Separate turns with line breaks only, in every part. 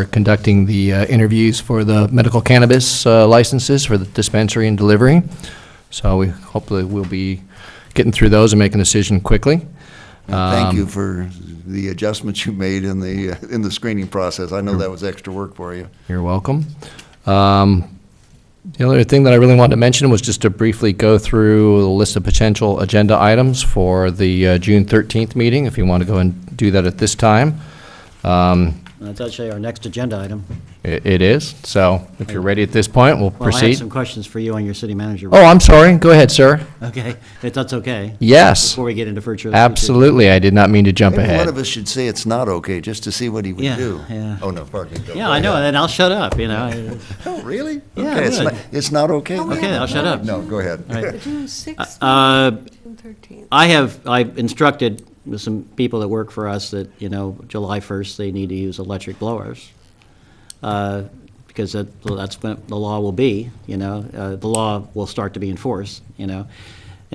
We're conducting the uh, interviews for the medical cannabis uh, licenses for the dispensary and delivery. So we hopefully we will be getting through those and making a decision quickly.
And Thank you for the adjustments you made in the, uh, in the screening process. I know that was extra work for you.
You're welcome. Um, The other thing that I really wanted to mention was just to briefly go through the list of potential agenda items for the uh, June 13th meeting, if you want to go and do that at this time. Um,
Uh, That's actually our next agenda item.
i- It is, so if you're ready at this point, we'll
Well, I have
proceed.
some questions for you on your city manager.
Oh, I'm sorry, go ahead, sir.
Okay, if that's okay,
Yes,
before we get into virtual.
absolutely, I did not mean to jump
Maybe one
ahead.
of us should say it's not okay, just to see what he would
Yeah,
do.
yeah.
Oh, no, pardon me. Go
Yeah, I know,
ahead.
and I'll shut up, you know. I-
Oh, really?
Yeah,
Okay, it's
good.
not- It's not okay?
Oh, we
Okay, I'll shut up.
No, go ahead.
All right.
June 6th,
Uh,
June 13th.
I have, I've instructed some people that work for us that, you know, July 1st, they need to use electric blowers, uh, because that, well, that's when the law will be, you know, uh, the law will start to be enforced, you know.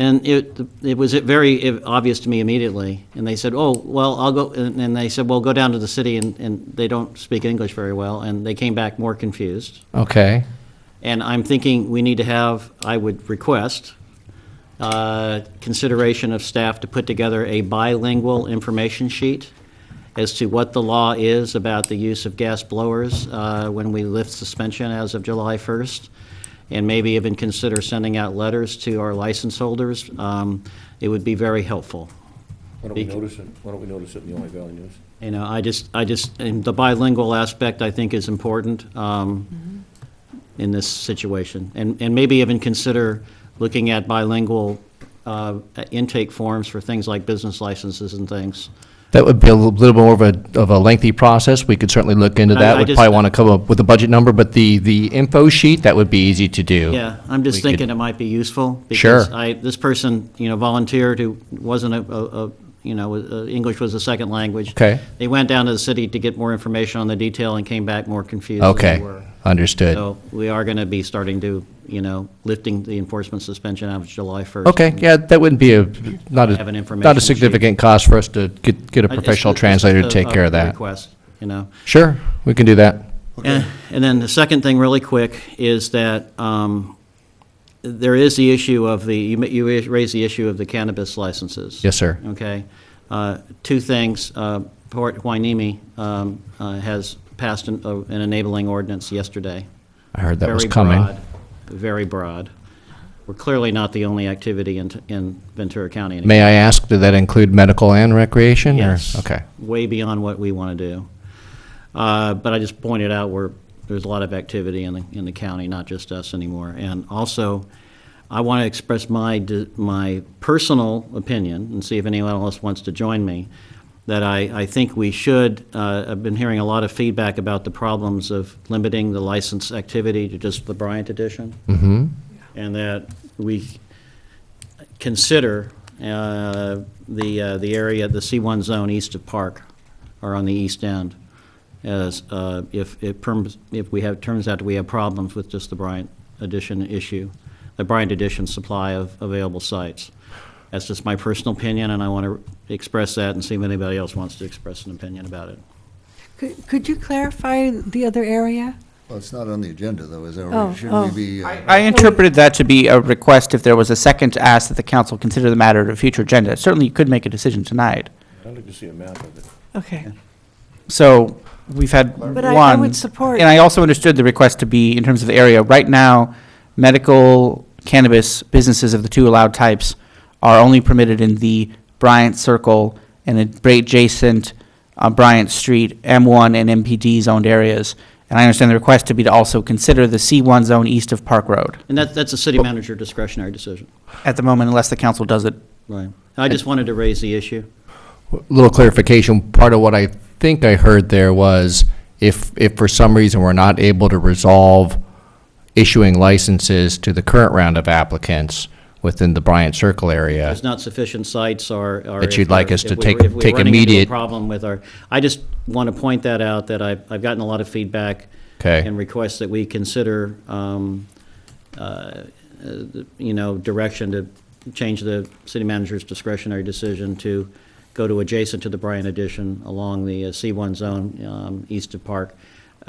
And it, it was very obvious to me immediately, and they said, oh, well, I'll go, and and they said, well, go down to the city, and, and they don't speak English very well, and they came back more confused.
Okay,
And I'm thinking we need to have, I would request, uh, consideration of staff to put together a bilingual information sheet as to what the law is about the use of gas blowers uh, when we lift suspension as of July 1st, and maybe even consider sending out letters to our license holders. Um, It would be very helpful.
Why don't we
Bec-
notice it, why don't we notice it in the Ojai Valley News?
You know, I just, I just, and the bilingual aspect, I think, is important um, in this situation. And, and maybe even consider looking at bilingual uh, intake forms for things like business licenses and things.
that would be a little bit more of a, of a lengthy process, we could certainly look into
I-
that.
I
We'd
just-
probably want to come up with a budget number, but the, the info sheet, that would be easy to do.
Yeah, I'm
We
just
could-
thinking it might be useful. Because
Sure.
I, this person, you know, volunteered who wasn't a- a, a- you know, uh, English was a second language.
Okay.
They went down to the city to get more information on the detail and came back more confused than they
Okay,
were.
understood.
So we are going to be starting to, you know, lifting the enforcement suspension out of July 1st.
Okay, yeah, that wouldn't be a, not
Have
a,
an
not
information
a
sheet.
significant cost for us to get, get a
I- it's
professional
just- it's
translator to
just
take
a-
care of
a
that.
Request, you know.
Sure, we can do that.
And and then the second thing, really quick, is that um, there is the issue of the, you ma- you raised the issue of the cannabis licenses.
Yes, sir.
Okay. Uh, Two things. Uh, Port Hueneme um, uh, has passed an uh, an enabling ordinance yesterday.
I heard that was
Very
coming.
broad, Very broad. We're clearly not the only activity in, in Ventura County. anymore.
May I ask, did that include medical and recreation? or-
Yes.
Okay,
Way beyond what we want to do. Uh, But I just pointed out where there's a lot of activity in the, in the county, not just us anymore. And also, I want to express my, d- my personal opinion, and see if anyone else wants to join me, that I, I think we should, uh, I've been hearing a lot of feedback about the problems of limiting the license activity to just the Bryant edition. Mm-hmm. And that we consider uh, the, uh, the area, the C1 zone east of Park, or on the east end, as, uh, if it perms, if we have, turns out we have problems with just the Bryant addition issue, the Bryant addition supply of available sites. That's just my personal opinion, and I want to express that and see if anybody else wants to express an opinion about it.
Could could you clarify the other area?
Well, it's not on the agenda, though, is
Oh,
it?
oh.
Shouldn't we be, uh,
I interpreted that to be a request if there was a second to ask that the council consider the matter at a future agenda. Certainly, you could make a decision tonight.
I'd like to see a map of it.
Okay.
So we've had one.
But I- I would support-
And I also understood the request to be in terms of the area. Right now, medical cannabis businesses of the two allowed types are only permitted in the Bryant Circle and the adjacent uh, Bryant Street M1 and MPD zoned areas. And I understand the request to be to also consider the C1 zone east of Park Road
And that, that's a city manager discretionary decision.
at the moment, unless the council does it
Right. I just wanted to raise the issue.
little clarification, part of what I think I heard there was if, if for some reason we're not able to resolve issuing licenses to the current round of applicants within the Bryant Circle area,
there's not sufficient sites or. or
That
if
you'd like
we're-
us to
if we-
take-
if we're
take
running into a
immediate-
Problem with our, I just want to point that out, that I've, I've gotten a lot of feedback.
Okay.
And requests that we consider, um, uh, uh, you know, direction to change the city manager's discretionary decision to go to adjacent to the Bryan addition along the uh, C1 zone um, east of Park